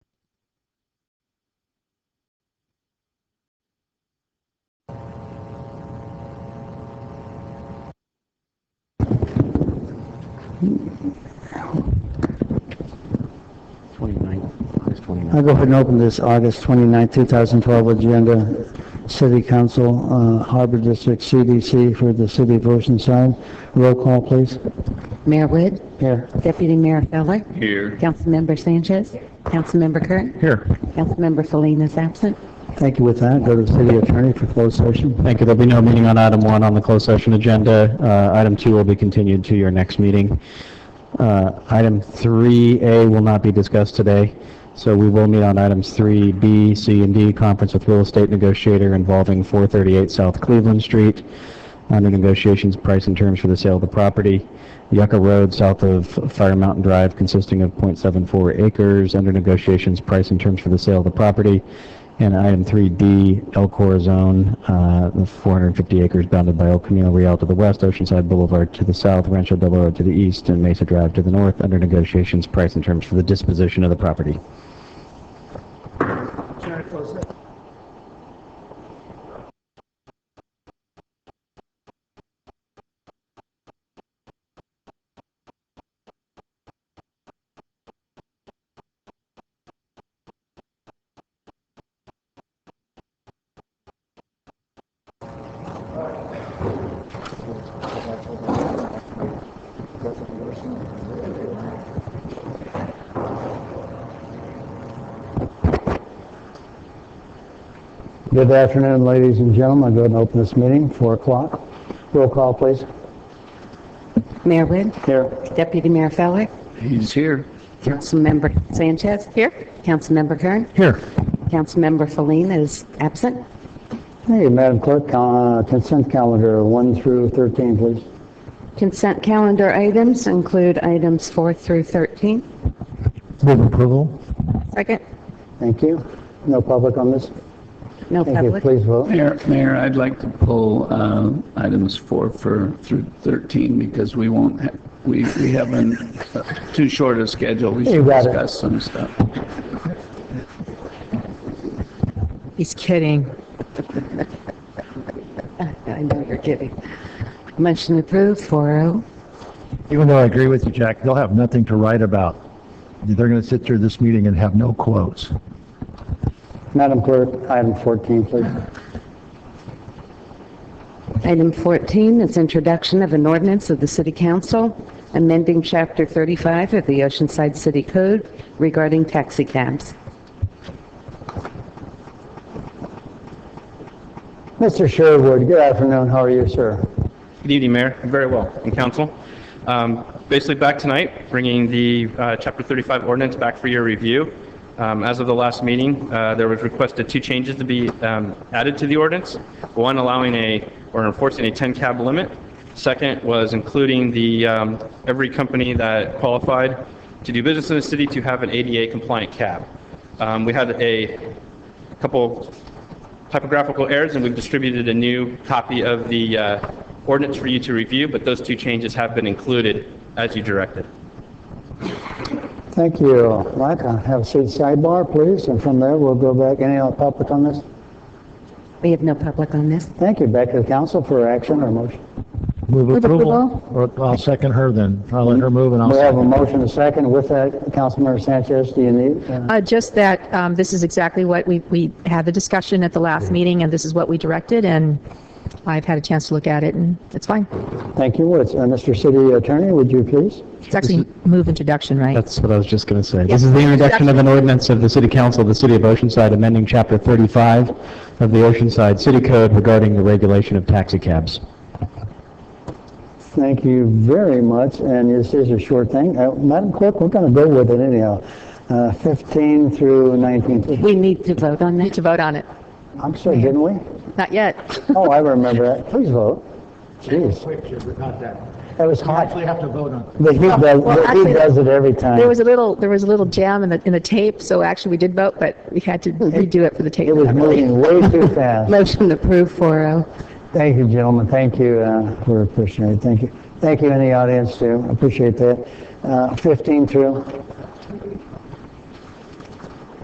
29th, August 29th. I'll go ahead and open this August 29, 2012 agenda. City Council, uh, Harbor District CDC for the City of Oceanside. Roll call, please. Mayor Wood, Here. Deputy Mayor Feller, Here. Councilmember Sanchez, Councilmember Curtin. Here. Councilmember Felina is absent. Thank you with that. Go to the City Attorney for closed session. Thank you. There'll be no meeting on item one on the closed session agenda. Uh, Item two will be continued to your next meeting. Uh, Item 3A will not be discussed today, so we will meet on items 3B, C, and D, conference with real estate negotiator involving 438 South Cleveland Street, under negotiations, price, and terms for the sale of the property. Yucca Road, south of Fire Mountain Drive, consisting of .74 acres, under negotiations, price, and terms for the sale of the property. And item 3D, El Corazon, uh, the 450 acres bounded by El Camino Real to the west, Oceanside Boulevard to the south, Rancho Del Oro to the east, and Mesa Drive to the north, under negotiations, price, and terms for the disposition of the property. Good afternoon, ladies and gentlemen. I'll go ahead and open this meeting, 4 o'clock. Roll call, please. Mayor Wood, Here. Deputy Mayor Feller, He's here. Councilmember Sanchez. Here. Councilmember Kern. Here. Councilmember Felina is absent. Hey, Madam Clerk, uh, consent calendar 1 through 13, please. Consent calendar items include items 4 through 13. Move approval. Second. Thank you. No public on this? No Thank you. public. Please vote. Mayor, Mayor, I'd like to pull uh, items four for, through 13 because we won't, ha- we, we have an- uh, too short a schedule. We should got it. discuss some stuff. He's kidding. I know you're kidding. Motion approved, oh. 4-0. Even though I agree with you, Jack, they'll have nothing to write about. They're going to sit through this meeting and have no quotes. Madam Clerk, item 14, please. Item 14 is introduction of an ordinance of the City Council amending Chapter 35 of the Oceanside City Code regarding taxi cabs. Mr. Sherwood, good afternoon. How are you, sir? Good evening, Mayor. Very well, and Council. Um, Basically, back tonight, bringing the uh, Chapter 35 ordinance back for your review. Um, As of the last meeting, uh, there was requested two changes to be um, added to the ordinance. One allowing a, or enforcing a 10 cab limit. Second was including the, um, every company that qualified to do business in the city to have an ADA compliant cab. Um, We had a couple typographical errors, and we've distributed a new copy of the uh, ordinance for you to review, but those two changes have been included as you directed. Thank you. Micah, have a seat sidebar, please, and from there, we'll go back. Any other public on this? We have no public on this. Thank you. Back to the council for action or motion. Move approval. approval. Or I'll second her then. I'll let her move and I'll We have a second. motion, a second. With that, Councilmember Sanchez, do you need? uh, Uh, Just that um, this is exactly what we, we had the discussion at the last meeting, and this is what we directed, and I've had a chance to look at it, and it's fine. Thank you. Woods. Uh, Mr. City Attorney, would you please? It's actually move introduction, right? That's what I was just going to say. This is the introduction of an ordinance of the City Council of the City of Oceanside amending Chapter 35 of the Oceanside City Code regarding the regulation of taxi cabs. Thank you very much, and this is a short thing. Uh, Madam Clerk, we're going to go with it anyhow. Uh, 15 through 19. please. We need to vote on Need that. to vote on it. I'm sorry, didn't we? Not yet. Oh, I remember that. Please vote. Jeez, that was hot. have to vote on. The heat does, Well, the heat actually, does it every time. There was a little, there was a little jam in the, in the tape, so actually we did vote, but we had to redo it for the tape. It was moving way too fast. Motion approved, oh. 4-0. Thank you, gentlemen. Thank you uh, for appreciating it. Thank you. Thank you in the audience, too. Appreciate that. Uh, 15 through